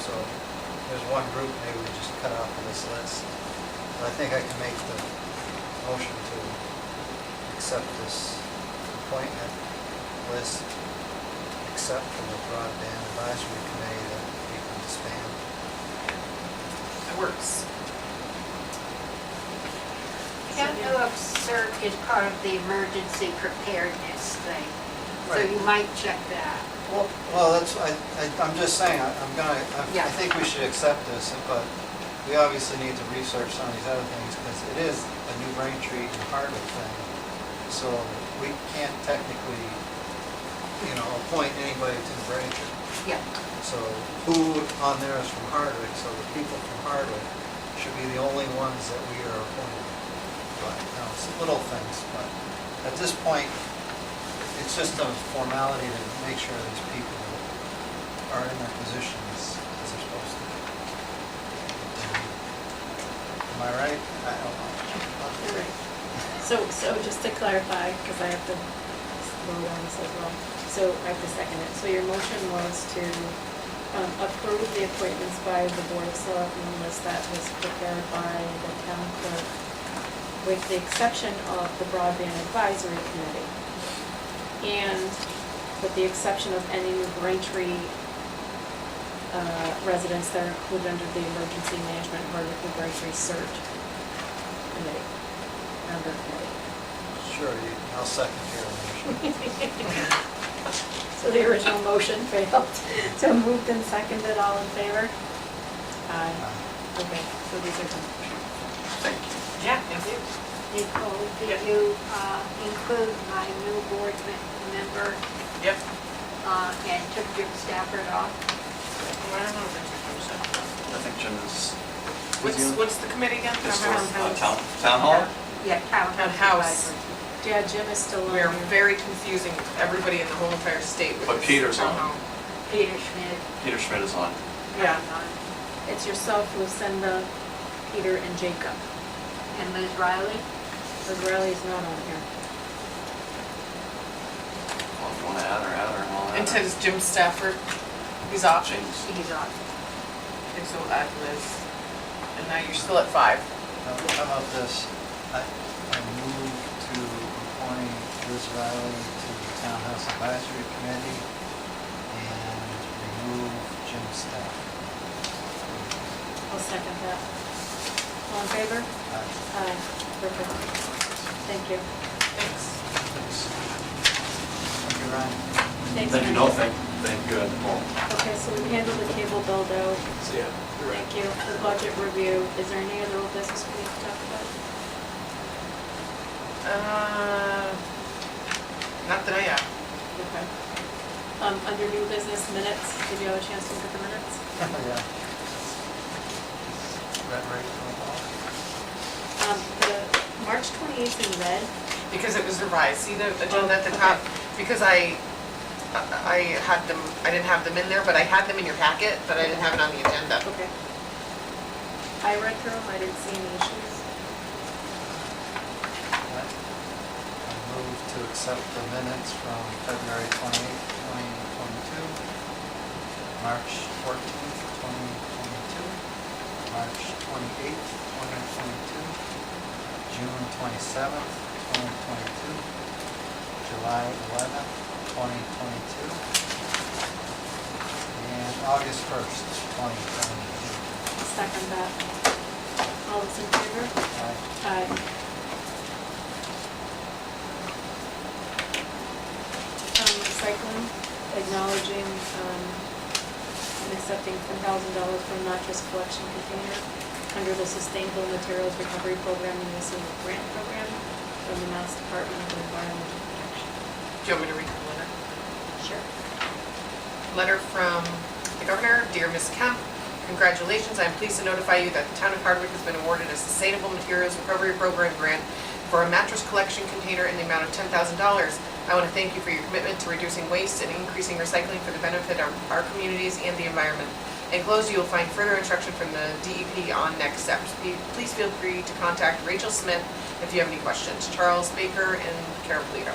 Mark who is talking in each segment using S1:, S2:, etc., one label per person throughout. S1: so there's one group maybe we just cut off of this list. But I think I can make the motion to accept this appointment list, except for the broadband advisory committee that we can disband.
S2: It works.
S3: Don't know if CERC is part of the emergency preparedness thing, so
S1: Right.
S3: you might check that.
S1: Well, well, that's, I, I- I'm just saying, I- I'm gonna, I- I
S3: Yeah.
S1: think we should accept this, but we obviously need to research some of these other things, because it is a New Braintree and Hardwick thing. So we can't technically, you know, appoint anybody to New Braintree.
S3: Yeah.
S1: So who on there is from Hardwick, so the people from Hardwick should be the only ones that we are appointing. But, you know, it's little things, but at this point, it's just a formality to make sure these people are in their positions as they're supposed to. be. Am I right? I don't know.
S4: So, so just to clarify, because I have to slow down this as well, so I have to second it. So your motion was to um, approve the appointments by the Board of Selectmen list that was prepared by the town clerk, with the exception of the Broadband Advisory Committee. And with the exception of any New Braintree uh, residents that are included under the Emergency Management Hardwick New Braintree CERT Committee, member committee.
S1: Sure, you- I'll second your motion.
S4: So the original motion failed. So moved and seconded, all in favor? Aye. Okay, so these are done.
S2: Yeah, thank you.
S3: Nicole,
S2: Yeah.
S3: did you uh, include my new board me- member
S2: Yep.
S3: uh, and took Jim Stafford off?
S2: Well, I don't know if it's a motion.
S5: I think Jim is.
S2: What's, what's the committee again?
S5: It's
S2: Town
S5: towards, uh,
S2: Hall?
S5: town, town hall?
S3: Yeah, town
S2: Town house.
S3: advisory.
S4: Yeah, Jim is still on.
S2: We are
S4: here.
S2: very confusing everybody in the whole entire state with
S5: But
S2: this
S5: Peter's
S2: town
S5: on.
S2: hall.
S3: Peter Schmidt.
S5: Peter Schmidt is on.
S2: Yeah.
S4: It's yourself, Lucinda, Peter, and Jacob.
S3: And Liz Riley?
S4: Israeli's not on here.
S5: Well, If you want to add or add or all that.
S2: And says Jim Stafford, he's off.
S5: James.
S3: He's off.
S2: And so add Liz. And now you're still at five.
S1: Now, How about this? I I move to appoint Liz Riley to the Townhouse Advisory Committee and remove Jim Stafford.
S4: I'll second that. All in favor?
S1: Uh,
S4: Aye. Perfect. Thank you.
S2: Thanks.
S1: thanks. Thank you, Ryan.
S4: Thanks,
S5: Then you
S4: Mary.
S5: know, thank, thank good. Well,
S4: Okay, so we handled the cable build out.
S5: see ya. You're in.
S4: Thank you. The budget review. Is there any other old business we need to talk about?
S2: Uh, Not that I uh, have.
S4: Okay. Um, under new business minutes, did you have a chance to look at the minutes?
S1: Yeah. Red, right, purple.
S4: Um, the March twenty-eighth in red,
S2: Because it was revised, see the agenda at the
S4: Oh,
S2: top? Because I, I had them, I didn't have them in there, but I had them in your packet, but I didn't have it on the agenda.
S4: okay. I read through them, I didn't see any issues.
S1: I move to accept the minutes from February 28th, 2022, March 14th, 2022, March 28th, 2022, June 27th, 2022, July 11th, 2022, and August 1st, 2022.
S4: Second that. All those in favor?
S1: Aye.
S4: Aye. Um, recycling, acknowledging, um, and accepting ten thousand dollars for mattress collection container under the Sustainable Materials Recovery Program and this is a grant program from the Mass Department of Environmental Protection.
S2: Do you want me to read the letter?
S4: Sure.
S2: Letter from the governor, Dear Ms. Kemp, congratulations, I am pleased to notify you that the town of Hardwick has been awarded a Sustainable Materials Recovery Program grant for a mattress collection container in the amount of $10,000. I want to thank you for your commitment to reducing waste and increasing recycling for the benefit of our communities and the environment. Enclosed, you will find further instruction from the DEP on next steps. Be- Please feel free to contact Rachel Smith if you have any questions. Charles Baker and Carol Polito.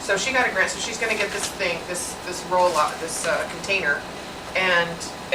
S2: So she got a grant, so she's gonna get this thing, this, this roll-up, this uh, container, and